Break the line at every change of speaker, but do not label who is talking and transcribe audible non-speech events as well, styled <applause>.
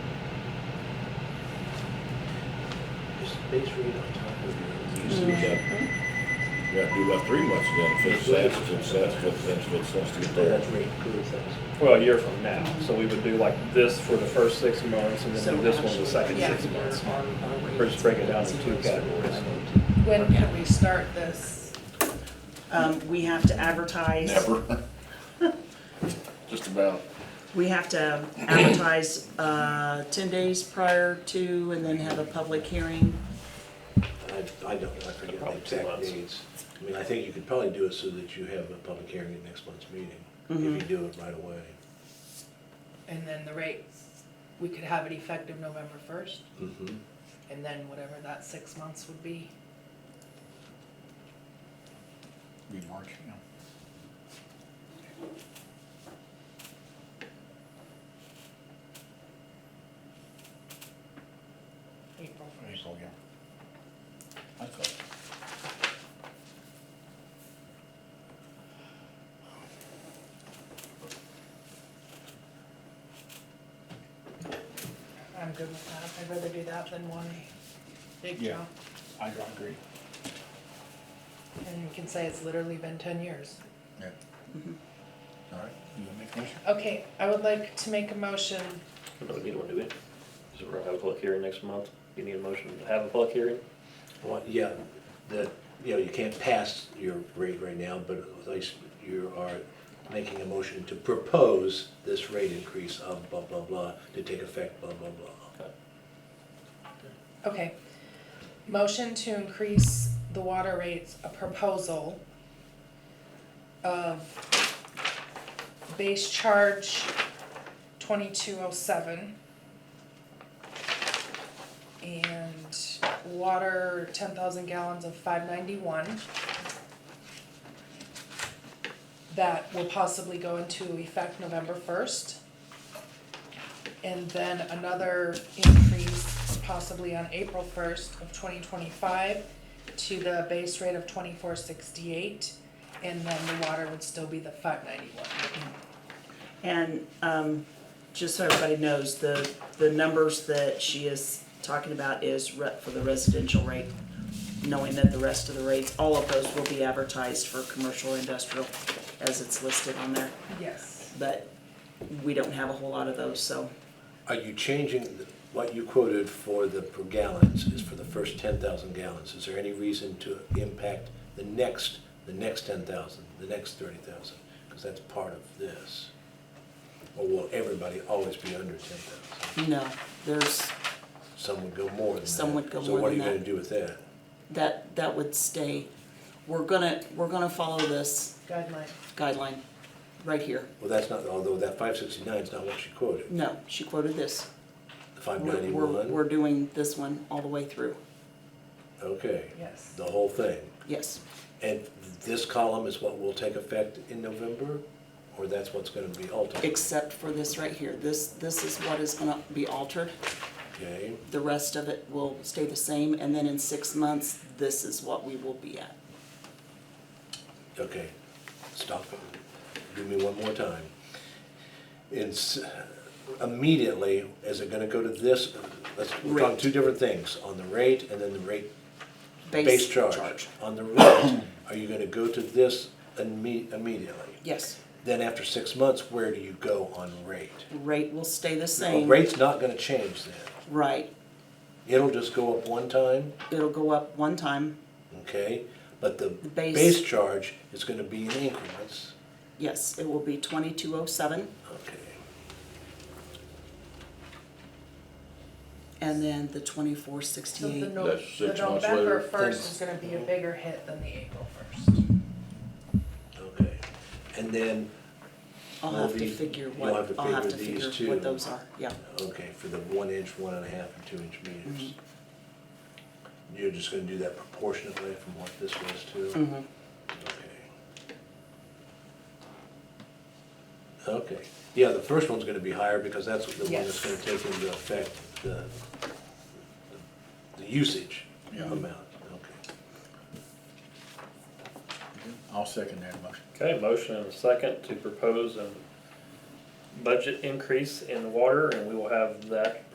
just base rate on top of it.
You see, we got, we got to do about three months then, fifth, sixth, fifth, sixth, fifth, sixth, fifth, sixth, to get
So that's
there.
rate includes that.
Well, a year from now, so we would do like this for the first six months, and
So
then do this one the
actually,
second
yeah.
six months.
Our- our rate
Or just break it down into two
includes that.
categories.
When can we start this?
Um, we have to advertise.
Never. <laughs> Just about.
We have to advertise, uh, ten days prior to and then have a public hearing.
I, I don't, I forget the
Probably two
exact
months.
dates. I mean, I think you could probably do it so that you have a public hearing at next month's meeting, if you do it right away.
And then the rate, we could have it effective November first,
Mm-hmm.
and then whatever that six months would be.
Be March, yeah.
April first.
April, yeah. I thought,
I'm good with that. I'd rather do that than one big
Yeah.
jump.
I agree.
And we can say it's literally been ten years.
Yeah. All right, you gonna make a motion?
Okay, I would like to make a motion.
We don't need one, do we? So we're gonna have a public hearing next month. You need a motion to have a public hearing?
Well, yeah, that, you know, you can't pass your rate right now, but at least you are making a motion to propose this rate increase of blah, blah, blah, to take effect, blah, blah, blah.
Okay. Motion to increase the water rates, a proposal of base charge twenty-two oh seven and water ten thousand gallons of five ninety-one that will possibly go into effect November first. And then another increase possibly on April first of twenty twenty-five to the base rate of twenty-four sixty-eight. And then the water would still be the five ninety-one.
And, um, just so everybody knows, the, the numbers that she is talking about is re- for the residential rate, knowing that the rest of the rates, all of those will be advertised for commercial, industrial, as it's listed on there,
Yes.
but we don't have a whole lot of those, so.
Are you changing the- what you quoted for the per gallons is for the first ten thousand gallons? Is there any reason to impact the next, the next ten thousand, the next thirty thousand? Because that's part of this. Or will everybody always be under ten thousand?
No, there's,
Some would go more than that.
Some would go
So
more
what are
than
you gonna
that.
do with that?
that, that would stay. We're gonna, we're gonna follow this
Guideline.
guideline right here.
Well, that's not, although that five sixty-nine is not what she quoted,
No, she quoted this.
the five
We're- We're,
ninety-one,
we're doing this one all the way through.
okay.
Yes.
The whole thing.
Yes,
And this column is what will take effect in November, or that's what's gonna be altered,
except for this right here. This, this is what is gonna be altered.
okay?
The rest of it will stay the same, and then in six months, this is what we will be at.
Okay, stop it. Do me one more time. It's immediately, is it gonna go to this, let's, we're talking
Rate.
two different things, on the rate and then the rate,
Base
base
charge.
charge. On the rate, are you gonna go to this imme- immediately?
Yes,
Then after six months, where do you go on rate?
rate will stay the
Well,
same.
rate's not gonna change then.
Right,
It'll just go up one time,
it'll go up one time,
okay? But the
base-
base charge is gonna be in increments,
yes, it will be twenty-two oh seven,
okay?
and then the twenty-four
So
sixty-eight.
the No-
That's
the
six months
November
later.
first is gonna be a bigger hit than the April first.
Okay, and then,
I'll
Will
have to
be-
figure
you'll
what,
have to
I'll have to
figure
figure
these two.
what those are, yeah.
okay, for the one inch, one and a half, and two inch meters. You're just gonna do that proportionately from what this was to?
Mhm.
Okay. Okay, yeah, the first one's gonna be higher because that's the one that's
Yes.
gonna take into effect the, the usage
Yeah.
amount, okay.
I'll second that motion.
Okay, motion and a second to propose a budget increase in water, and we will have that